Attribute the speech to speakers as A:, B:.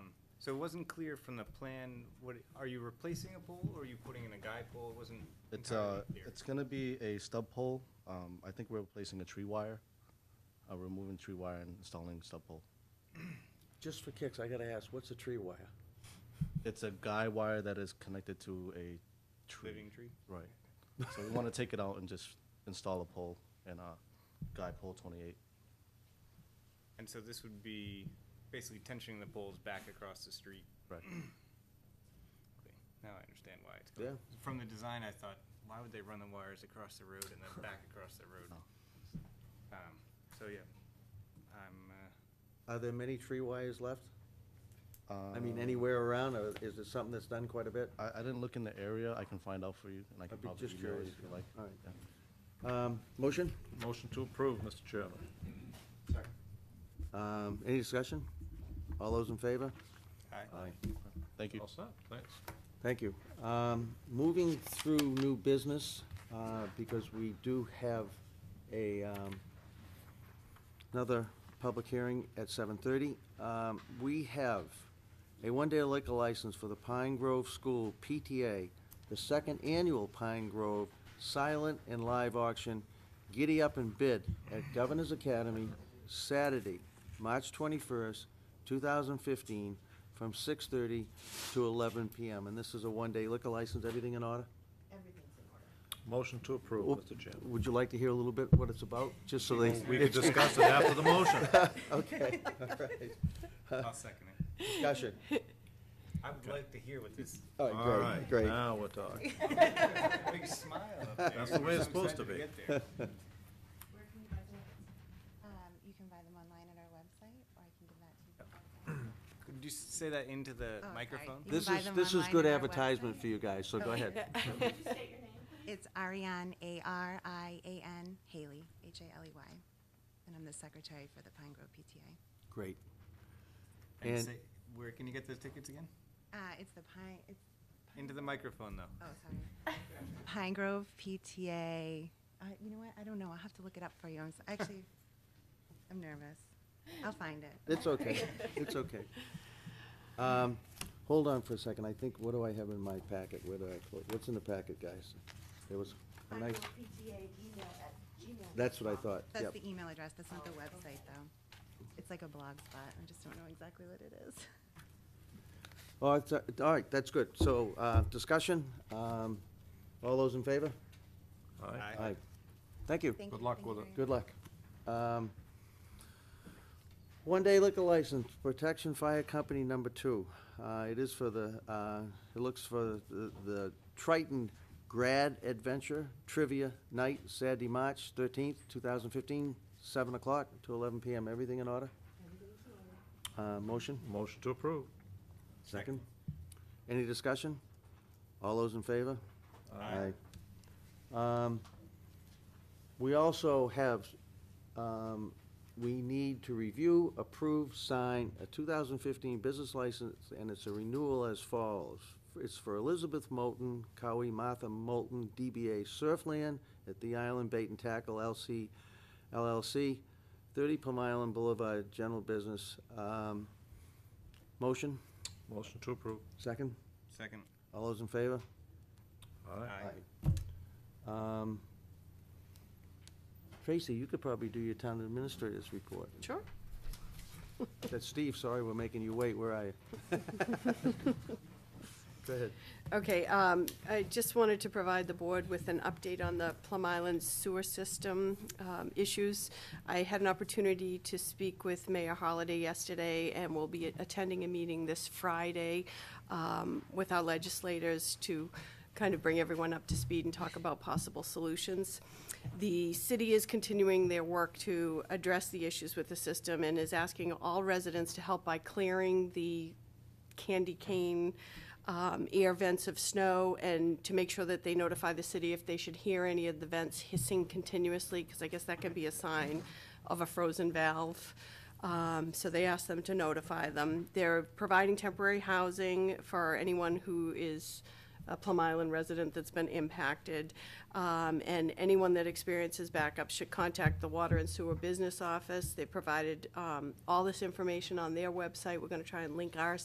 A: So it wasn't clear from the plan, what, are you replacing a pole or are you putting in a guy pole? It wasn't
B: It's, uh,
A: entirely clear.
B: it's gonna be a stub pole. Um, I think we're replacing a tree wire, uh, removing tree wire and installing stub pole.
C: Just for kicks, I gotta ask, what's a tree wire?
B: It's a guy wire that is connected to a tree.
A: Living tree?
B: Right. So we wanna take it out and just install a pole and, uh, guy pole twenty-eight.
A: And so this would be basically tensioning the poles back across the street.
B: Right.
A: Okay, Now I understand why it's going. From the design, I thought, why would they run the wires across the road and then back across the road?
B: Oh.
A: Um, so yeah, I'm, uh,
C: Are there many tree wires left? I mean, anywhere around, or is it something that's done quite a bit?
B: Um, I, I didn't look in the area. I can find out for you and I can
C: I'd be
B: probably
C: just
B: email it
C: curious.
B: if you like.
C: All right.
B: Yeah.
C: Um, motion?
D: Motion to approve, Mr. Chairman.
C: Um, any discussion? All those in favor?
A: I,
B: Thank you.
D: All set, thanks.
C: Thank you. Um, moving through new business, uh, because we do have a, um, another public hearing at seven thirty. Um, we have a one-day liquor license for the Pine Grove School PTA, the second annual Pine Grove Silent and Live Auction, Giddy Up and Bid at Governor's Academy, Saturday, March twenty-first, two thousand fifteen, from six thirty to eleven PM. And this is a one-day liquor license, everything in order?
E: Everything's in order.
D: Motion to approve, Mr. Chairman.
C: Would you like to hear a little bit what it's about, just so they?
D: We can discuss it after the motion.
C: Okay, all right.
B: Uh.
A: I'll second it.
C: Discussion.
A: I would like to hear what this,
C: All
D: All
C: right, great,
D: right,
C: great.
D: now we're talking.
A: big smile up there.
D: That's the way it's
A: I'm
D: supposed
A: excited
D: to be.
A: get there.
E: Where can you buy them? Um, you can buy them online at our website, or I can give that to you.
A: Could you say that into the
E: sorry.
A: microphone?
E: You can
C: This
E: buy
C: is,
E: them
C: this is
E: online
C: good
E: at our
C: advertisement
E: website. Oh,
C: for you guys, so go ahead.
E: It's Ariane, A-R-I-A-N, Haley, H-A-L-E-Y, E and I'm the secretary for the Pine Grove PTA.
C: Great.
A: And
C: And-
A: say, where can you get those tickets again?
E: Uh, it's the Pine, it's,
A: Into the microphone, though.
E: oh, sorry. Pine Grove PTA, uh, you know what, I don't know, I'll have to look it up for you, I'm, s- actually, I'm nervous. I'll find it.
C: It's okay, it's okay. Um, Hold on for a second, I think, what do I have in my packet? Where do I, clo- what's in the packet, guys? There was a nice, that's what I thought,
E: That's
C: yep.
E: the e- email address, that's not the website, though. It's like a blog spot, I just don't know exactly what it is.
C: All right, th- Oh, uh, all right, that's good. So, uh, discussion, um, all those in favor?
D: All right.
C: Aye. Thank you.
E: Thank
D: Good
E: you,
D: luck
E: thank
D: with
E: you
D: it.
E: very
C: Good luck. Um, One day liquor license, Protection Fire Company Number Two. Uh, It is for the, uh, it looks for the- the Triton Grad Adventure Trivia Night, Saturday, March 13th, 2015, 7 o'clock to 11 PM. Everything in order? Uh, Motion?
D: Motion to approve.
C: Second. Any discussion? All those in favor?
A: Aye.
C: Um, We also have, um, we need to review, approve, sign a 2015 business license, and it's a renewal as follows. It's for Elizabeth Moulton, Cowie Martha Moulton, DBA Surfland at the Island Bait and Tackle LC LLC, 30 Plum Island Boulevard, general business. Um, Motion?
D: Motion to approve.
C: Second?
A: Second.
C: All those in favor?
D: All right.
C: Um, Tracy, you could probably do your town administrator's report.
F: Sure.
C: That's Steve, sorry we're making you wait, where are you? Go ahead.
F: Okay, um, I just wanted to provide the board with an update on the Plum Island sewer system, um, issues. I had an opportunity to speak with Mayor Holliday yesterday and will be attending a meeting this Friday, um, with our legislators to kind of bring everyone up to speed and talk about possible solutions. The city is continuing their work to address the issues with the system and is asking all residents to help by clearing the candy cane um, air vents of snow and to make sure that they notify the city if they should hear any of the vents hissing continuously because I guess that can be a sign of a frozen valve. Um, so they asked them to notify them. They're providing temporary housing for anyone who is a Plum Island resident that's been impacted. Um, and anyone that experiences backup should contact the Water and Sewer Business Office. They provided um, all this information on their website. We're going to try and link our